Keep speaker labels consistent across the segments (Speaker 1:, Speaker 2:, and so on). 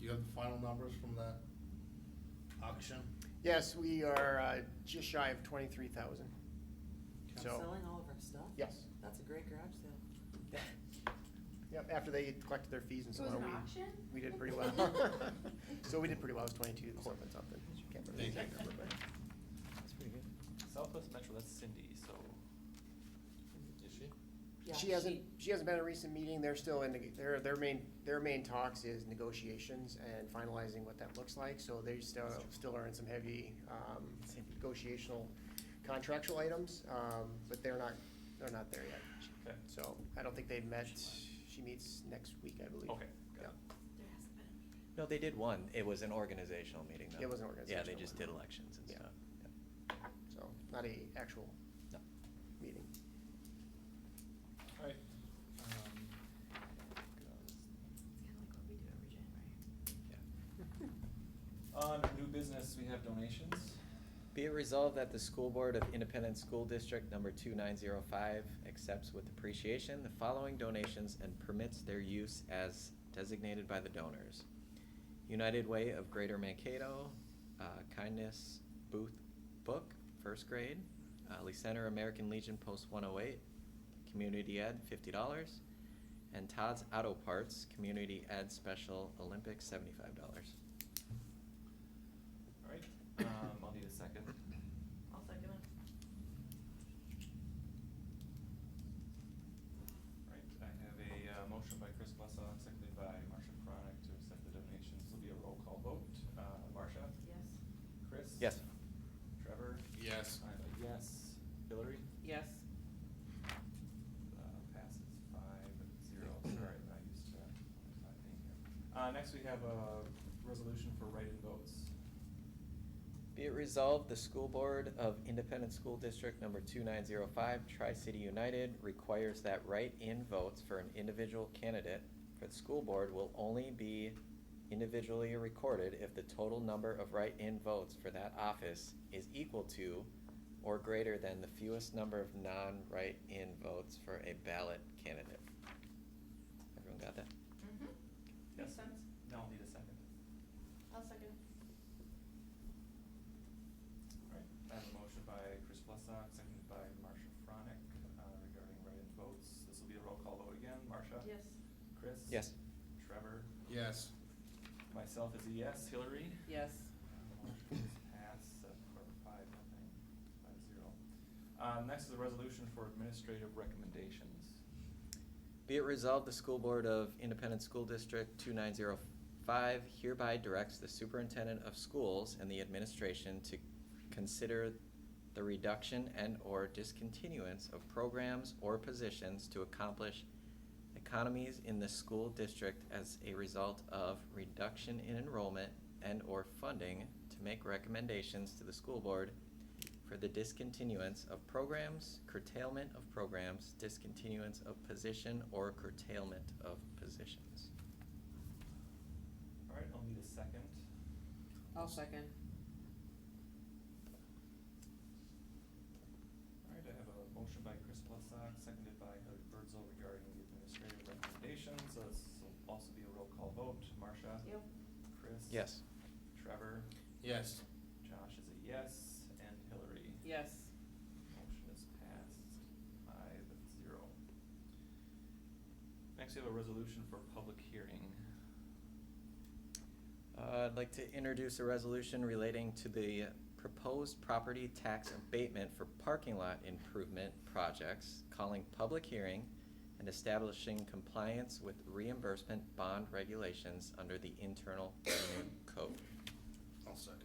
Speaker 1: the final numbers from that auction?
Speaker 2: Yes, we are uh, just shy of twenty-three thousand. So-
Speaker 3: Selling all of our stuff?
Speaker 2: Yes.
Speaker 3: That's a great garage sale.
Speaker 2: Yep, after they collected their fees and
Speaker 4: It
Speaker 2: so
Speaker 4: was
Speaker 2: on,
Speaker 4: an
Speaker 2: we,
Speaker 4: auction?
Speaker 2: we did pretty well. So we did pretty well, it was twenty-two something something. Can't remember the
Speaker 1: Thank you.
Speaker 2: exact number, but-
Speaker 5: That's pretty good.
Speaker 6: Southwest Metro, that's Cindy, so.
Speaker 1: Is she?
Speaker 3: Yeah,
Speaker 2: She hasn't, she hasn't been at a recent meeting, they're still in, neg- their, their main, their main talks is negotiations and finalizing what that looks like, so they still, still are in some heavy, um, negotiational contractual items, um, but they're not, they're not there yet.
Speaker 6: Okay.
Speaker 2: So, I don't think they've met, she meets next week, I believe.
Speaker 6: Okay, got
Speaker 2: Yeah.
Speaker 6: it.
Speaker 4: There hasn't been a meeting.
Speaker 5: No, they did one. It was an organizational meeting, though.
Speaker 2: It was an
Speaker 5: Yeah,
Speaker 2: organizational
Speaker 5: they just
Speaker 2: one.
Speaker 5: did elections and
Speaker 2: Yeah.
Speaker 5: stuff. Yeah.
Speaker 2: So, not a actual
Speaker 5: No.
Speaker 2: meeting.
Speaker 1: Alright.
Speaker 6: um,
Speaker 4: It's kind of like what we do every January.
Speaker 6: On new business, we have donations.
Speaker 5: Be it resolved that the School Board of Independent School District Number 2905 accepts with appreciation the following donations and permits their use as designated by the donors. United Way of Greater Mankato, uh, Kindness Booth Book, first grade, uh, Lee Center American Legion Post 108, Community Ed, $50, and Todd's Auto Parts, Community Ed Special Olympics, $75.
Speaker 6: Alright, um, I'll need a second.
Speaker 4: I'll second it.
Speaker 6: Alright, I have a, uh, motion by Chris Blessock, seconded by Marcia Chronic to accept the donations. This will be a roll call vote. Uh, Marcia?
Speaker 4: Yes.
Speaker 6: Chris?
Speaker 5: Yes.
Speaker 6: Trevor?
Speaker 1: Yes.
Speaker 6: I'm a yes. Hillary?
Speaker 3: Yes.
Speaker 6: Uh, passes five zero, sorry, I used to, not being here. Uh, next we have a resolution for write-in votes.
Speaker 5: Be it resolved, the School Board of Independent School District Number 2905, Tri-City United, requires that write-in votes for an individual candidate for the school board will only be individually recorded if the total number of write-in votes for that office is equal to or greater than the fewest number of non-write-in votes for a ballot candidate. Everyone got that?
Speaker 4: Mm-hmm. Makes
Speaker 6: Yes.
Speaker 4: sense.
Speaker 6: Now I'll need a second.
Speaker 4: I'll second it.
Speaker 6: Alright, I have a motion by Chris Blessock, seconded by Marcia Fronik, uh, regarding write-in votes. This will be a roll call vote again. Marcia?
Speaker 4: Yes.
Speaker 6: Chris?
Speaker 5: Yes.
Speaker 6: Trevor?
Speaker 1: Yes.
Speaker 6: Myself is a yes. Hillary?
Speaker 3: Yes.
Speaker 6: Motion's passed, seven, or five, nothing, five zero. Um, next is a resolution for administrative recommendations.
Speaker 5: Be it resolved, the School Board of Independent School District 2905 hereby directs the Superintendent of Schools and the administration to consider the reduction and/or discontinuance of programs or positions to accomplish economies in the school district as a result of reduction in enrollment and/or funding to make recommendations to the school board for the discontinuance of programs, curtailment of programs, discontinuance of position, or curtailment of positions.
Speaker 6: All right, I'll need a second.
Speaker 3: I'll second.
Speaker 6: All right, I have a motion by Chris Plesak, seconded by Hillary Birdsall regarding the administrative recommendations. So this will also be a roll call vote. Marcia?
Speaker 4: Yep.
Speaker 6: Chris?
Speaker 5: Yes.
Speaker 6: Trevor?
Speaker 1: Yes.
Speaker 6: Josh is a yes, and Hillary?
Speaker 3: Yes.
Speaker 6: Motion is passed five zero. Next, we have a resolution for public hearing.
Speaker 5: Uh, I'd like to introduce a resolution relating to the proposed property tax abatement for parking lot improvement projects, calling public hearing and establishing compliance with reimbursement bond regulations under the Internal Revenue Code.
Speaker 1: I'll second it.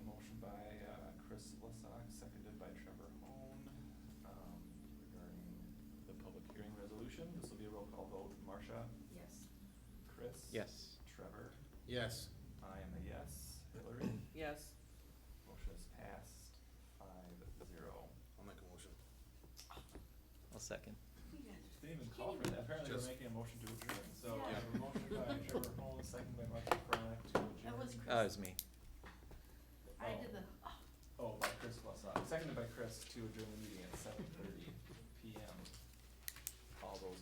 Speaker 6: A motion by uh, Chris Plesak, seconded by Trevor Hone, um, regarding the public hearing resolution. This will be a roll call vote. Marcia?
Speaker 4: Yes.
Speaker 6: Chris?
Speaker 5: Yes.
Speaker 6: Trevor?
Speaker 1: Yes.
Speaker 6: I am a yes. Hillary?
Speaker 3: Yes.
Speaker 6: Motion is passed five zero.
Speaker 1: I'll make a motion.
Speaker 5: I'll second.
Speaker 4: We got it.
Speaker 6: Didn't even call for that, apparently we're
Speaker 1: Just-
Speaker 6: making a motion to adjourn, so
Speaker 4: Yeah.
Speaker 6: I have a motion by Trevor Hall, second by Marcia Chronic to adjourn.
Speaker 4: That was
Speaker 5: Uh, it was me.
Speaker 4: I
Speaker 6: Oh.
Speaker 4: did the, oh,
Speaker 6: Oh, by Chris Blessock, seconded by Chris to adjourn the meeting at seven thirty P M. All those